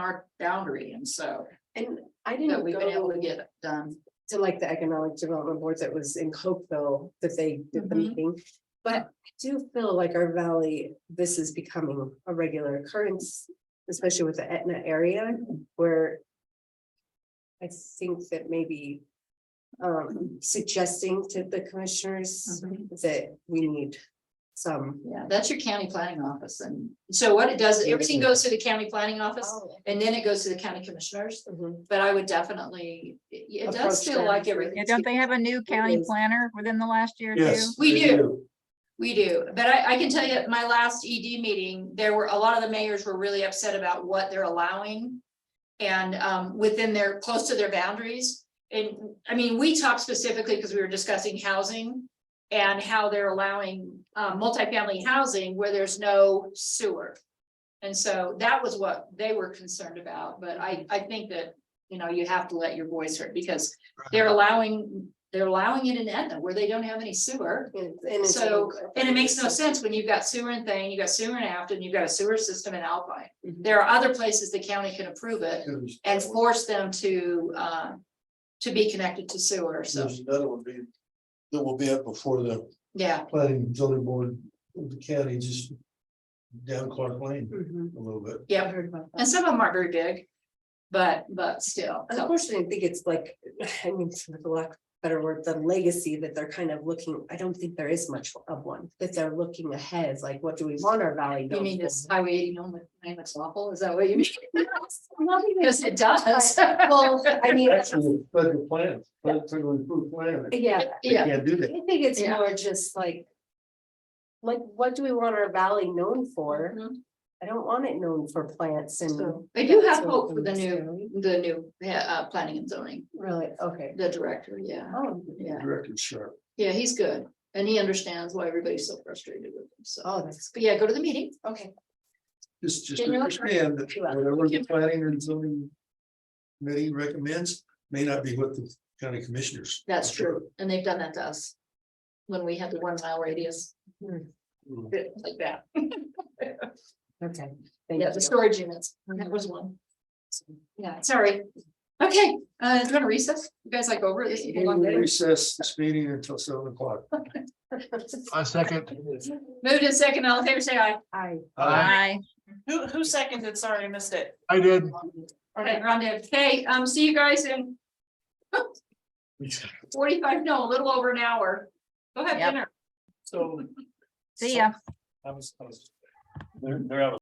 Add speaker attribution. Speaker 1: our boundary, and so
Speaker 2: And I
Speaker 1: that
Speaker 2: didn't
Speaker 1: we've been able
Speaker 2: go
Speaker 1: to get it done.
Speaker 2: to like the economic development boards that was in Cokeville that they did the
Speaker 1: Mhm.
Speaker 2: meeting. But I do feel like our valley, this is becoming a regular occurrence, especially with the Etna area where. I think that maybe um suggesting to the commissioners
Speaker 1: Mm-hmm.
Speaker 2: that we need some.
Speaker 1: Yeah, that's your county planning office, and so what it does, everything goes to the county planning office,
Speaker 2: Oh.
Speaker 1: and then it goes to the county commissioners,
Speaker 2: Mhm.
Speaker 1: but I would definitely, it it does
Speaker 2: Approach
Speaker 1: feel
Speaker 2: them.
Speaker 1: like everything.
Speaker 3: Yeah, don't they have a new county
Speaker 2: is.
Speaker 3: planner within the last year too?
Speaker 4: Yes.
Speaker 1: We
Speaker 4: they
Speaker 1: do. We do, but I, I can tell you, at my last ED meeting, there were, a lot of the mayors were really upset about what they're allowing. And, um, within their, close to their boundaries, and, I mean, we talked specifically because we were discussing housing. And how they're allowing, um, multifamily housing where there's no sewer. And so that was what they were concerned about, but I, I think that, you know, you have to let your voice heard, because they're allowing, they're allowing it in Etna where they don't have any sewer.
Speaker 2: And it's-
Speaker 1: So, And it makes no sense when you've got sewer in Thane, you've got sewer in Afton, you've got a sewer system in Alpine.
Speaker 2: Mhm.
Speaker 1: There are other places the county can approve it
Speaker 4: There's
Speaker 1: and force them to, uh, to be connected to sewer, so,
Speaker 4: there's another one being, that will be up before the
Speaker 1: yeah.
Speaker 4: planning and zoning board of the county, just down Clark Lane
Speaker 2: Mhm.
Speaker 4: a little bit.
Speaker 2: I
Speaker 1: Yeah,
Speaker 2: heard about that.
Speaker 1: and some of them aren't very big, but, but still. so-
Speaker 2: Unfortunately, I think it's like, I mean, for the lack of a better word, the legacy that they're kind of looking, I don't think there is much of one, that they're looking ahead, it's like, what do we want our valley?
Speaker 1: You
Speaker 2: known
Speaker 1: mean
Speaker 2: for?
Speaker 1: this highway eighty, no, name it's awful, is that what you mean?
Speaker 2: Not even-
Speaker 1: Yes, it does.
Speaker 2: Well, I mean,
Speaker 4: Actually, federal plans, federal approved plan.
Speaker 2: yeah,
Speaker 4: They
Speaker 1: Yeah,
Speaker 4: can't do
Speaker 2: I
Speaker 4: that.
Speaker 2: think it's
Speaker 1: Yeah.
Speaker 2: more just like. Like, what do we want our valley known for?
Speaker 1: Mhm.
Speaker 2: I don't want it known for plants and.
Speaker 1: So, I do have
Speaker 2: So
Speaker 1: hope for the
Speaker 2: unnecessary.
Speaker 1: new, the new, uh, uh, planning and zoning,
Speaker 2: Really, okay.
Speaker 1: the director, yeah,
Speaker 2: Oh,
Speaker 1: yeah.
Speaker 4: Directed sharp.
Speaker 1: Yeah, he's good, and he understands why everybody's so frustrated with him, so,
Speaker 2: oh, that's,
Speaker 1: but yeah, go to the meeting.
Speaker 2: okay,
Speaker 4: Just, just
Speaker 1: Didn't really-
Speaker 4: understand that
Speaker 2: Yeah.
Speaker 4: whatever the planning and zoning committee recommends may not be what the county commissioners.
Speaker 1: That's true, and they've done that to us. When we had the one mile radius,
Speaker 4: Mm.
Speaker 1: bit like that,
Speaker 2: okay. thank
Speaker 1: yeah, the
Speaker 2: you. Mm-hmm.
Speaker 1: storage units, that was one. Yeah, sorry, okay, uh, do you want to recess? You guys like over this?
Speaker 4: We will Recess this meeting until seven o'clock.
Speaker 5: A second.
Speaker 1: Moved in second, all in favor, say aye.
Speaker 2: I,
Speaker 3: Aye.
Speaker 6: Who, who seconded? Sorry, I missed it.
Speaker 5: I did.
Speaker 1: Okay, Rhonda, okay, um, see you guys in forty-five, no, a little over an hour. Go have
Speaker 3: Yep.
Speaker 1: dinner.
Speaker 4: So.
Speaker 3: See ya.
Speaker 4: I was, I was. They're, they're out of